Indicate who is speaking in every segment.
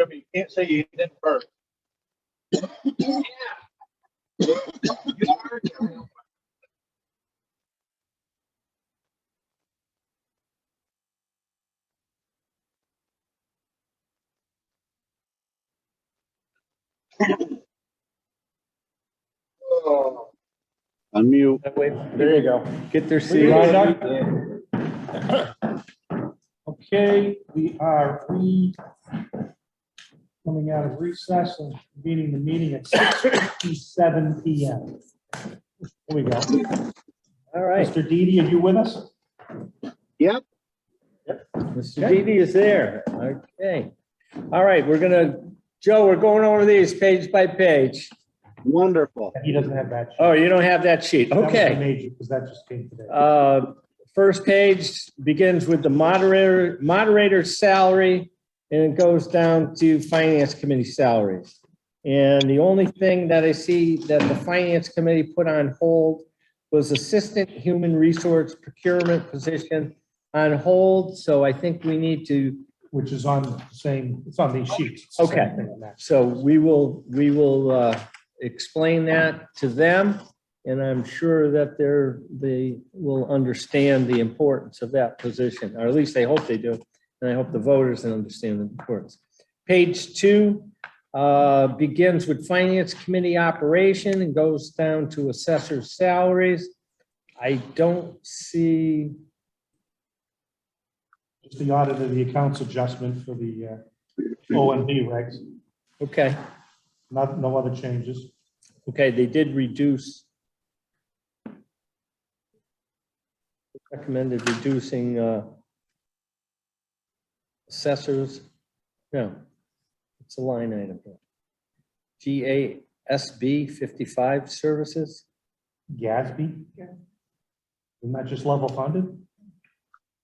Speaker 1: up, you can't see you, then burn. Oh,
Speaker 2: Unmute.
Speaker 3: There you go.
Speaker 2: Get their seat.
Speaker 3: Right, Okay, we are re, coming out of recess and beginning the meeting at six fifty-seven P M. Here we go.
Speaker 4: All right,
Speaker 3: Mr. Didi, are you with us?
Speaker 4: Mr. Didi is there. Okay. All right, we're gonna, Joe, we're going over these page by page.
Speaker 2: Wonderful.
Speaker 3: He doesn't have that. sheet.
Speaker 4: Oh, you don't have that sheet.
Speaker 3: That was the
Speaker 4: Okay.
Speaker 3: Major, because that just came today.
Speaker 4: Uh, First page begins with the moderator, moderator's salary, and it goes down to finance committee salaries. And the only thing that I see that the finance committee put on hold was assistant human resource procurement position on hold, so I think we need to
Speaker 3: Which is on the same, it's on these sheets. It's the same
Speaker 4: Okay.
Speaker 3: thing on that.
Speaker 4: So we will, we will uh, explain that to them, and I'm sure that they're, they will understand the importance of that position, or at least they hope they do, and I hope the voters understand the importance. Page two uh, begins with Finance Committee operation and goes down to assessor's salaries. I don't see,
Speaker 3: Just the audit of the accounts adjustment for the uh, O and B regs,
Speaker 4: okay,
Speaker 3: not, no other changes.
Speaker 4: okay, they did reduce. recommended reducing uh, assessors. No, it's a line item. here. GASB 55 services.
Speaker 3: Gatsby? Isn't that just level funded?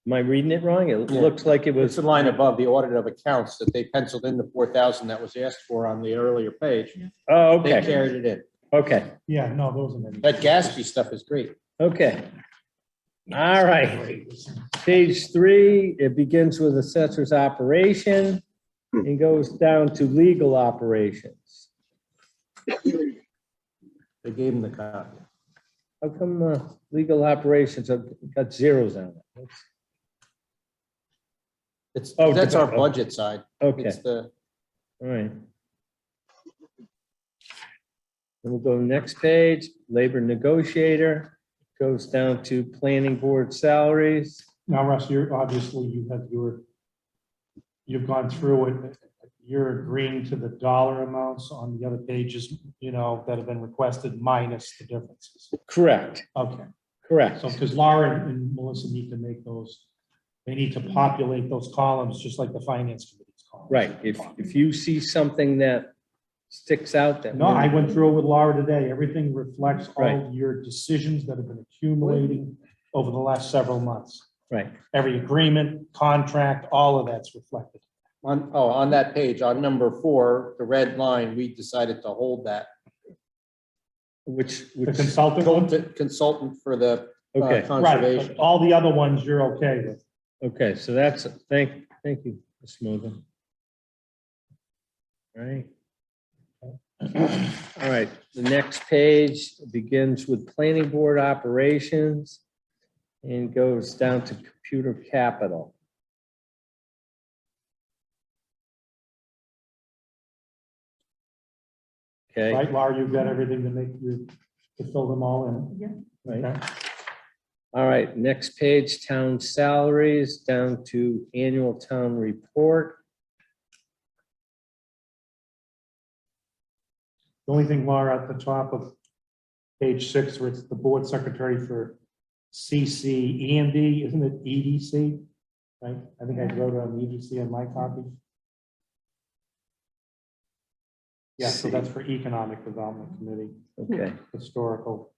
Speaker 4: Am I reading it wrong? It
Speaker 5: Yeah.
Speaker 4: looks like it
Speaker 5: It's
Speaker 4: was,
Speaker 5: the line above, the audit of accounts, that they penciled in the four thousand that was asked for on the earlier page.
Speaker 4: oh,
Speaker 5: They
Speaker 4: okay,
Speaker 5: carried it in.
Speaker 4: okay,
Speaker 3: Yeah, no, there wasn't any.
Speaker 5: That Gatsby stuff is great.
Speaker 4: okay. All right. Page three, it begins with assessor's operation and goes down to legal operations.
Speaker 5: They gave them the copy.
Speaker 4: How come uh, legal operations have got zeros on it? That's-
Speaker 5: It's,
Speaker 4: Oh,
Speaker 5: that's our
Speaker 4: okay.
Speaker 5: budget side.
Speaker 4: Okay,
Speaker 5: It's the,
Speaker 4: all right. Then we'll go to the next page, labor negotiator, goes down to planning board salaries.
Speaker 3: Now, Russ, you're, obviously, you have your, you've gone through it. You're agreeing to the dollar amounts on the other pages, you know, that have been requested minus the differences.
Speaker 4: Correct,
Speaker 3: Okay,
Speaker 4: correct.
Speaker 3: so because Laura and Melissa need to make those, they need to populate those columns, just like the finance committee's columns.
Speaker 4: Right, if, if you see something that sticks out that.
Speaker 3: No, I went through it with Laura today. Everything reflects all
Speaker 4: Right.
Speaker 3: your decisions that have been accumulating over the last several months.
Speaker 4: Right,
Speaker 3: Every agreement, contract, all of that's reflected.
Speaker 5: on, oh, on that page, on number four, the red line, we decided to hold that.
Speaker 4: which,
Speaker 3: The
Speaker 4: which,
Speaker 3: consultant one?
Speaker 5: Consultant- Consultant for the uh,
Speaker 4: okay,
Speaker 3: Right,
Speaker 5: conservation.
Speaker 3: but all the other ones you're okay with.
Speaker 4: okay, so that's, thank, thank you, Ms. Mogul. All right. All right, the next page begins with planning board operations and goes down to computer capital. Okay,
Speaker 3: Right, Laura, you've got everything to make you, to fill them all in.
Speaker 4: right.
Speaker 3: Okay.
Speaker 4: All right, next page, town salaries, down to annual town report.
Speaker 3: The only thing, Laura, at the top of page six, where it's the board secretary for CC and D, isn't it EDC? Right, I think I wrote on EDC on my copy. Yeah, so that's for Economic Development Committee,
Speaker 4: Okay,
Speaker 3: Historical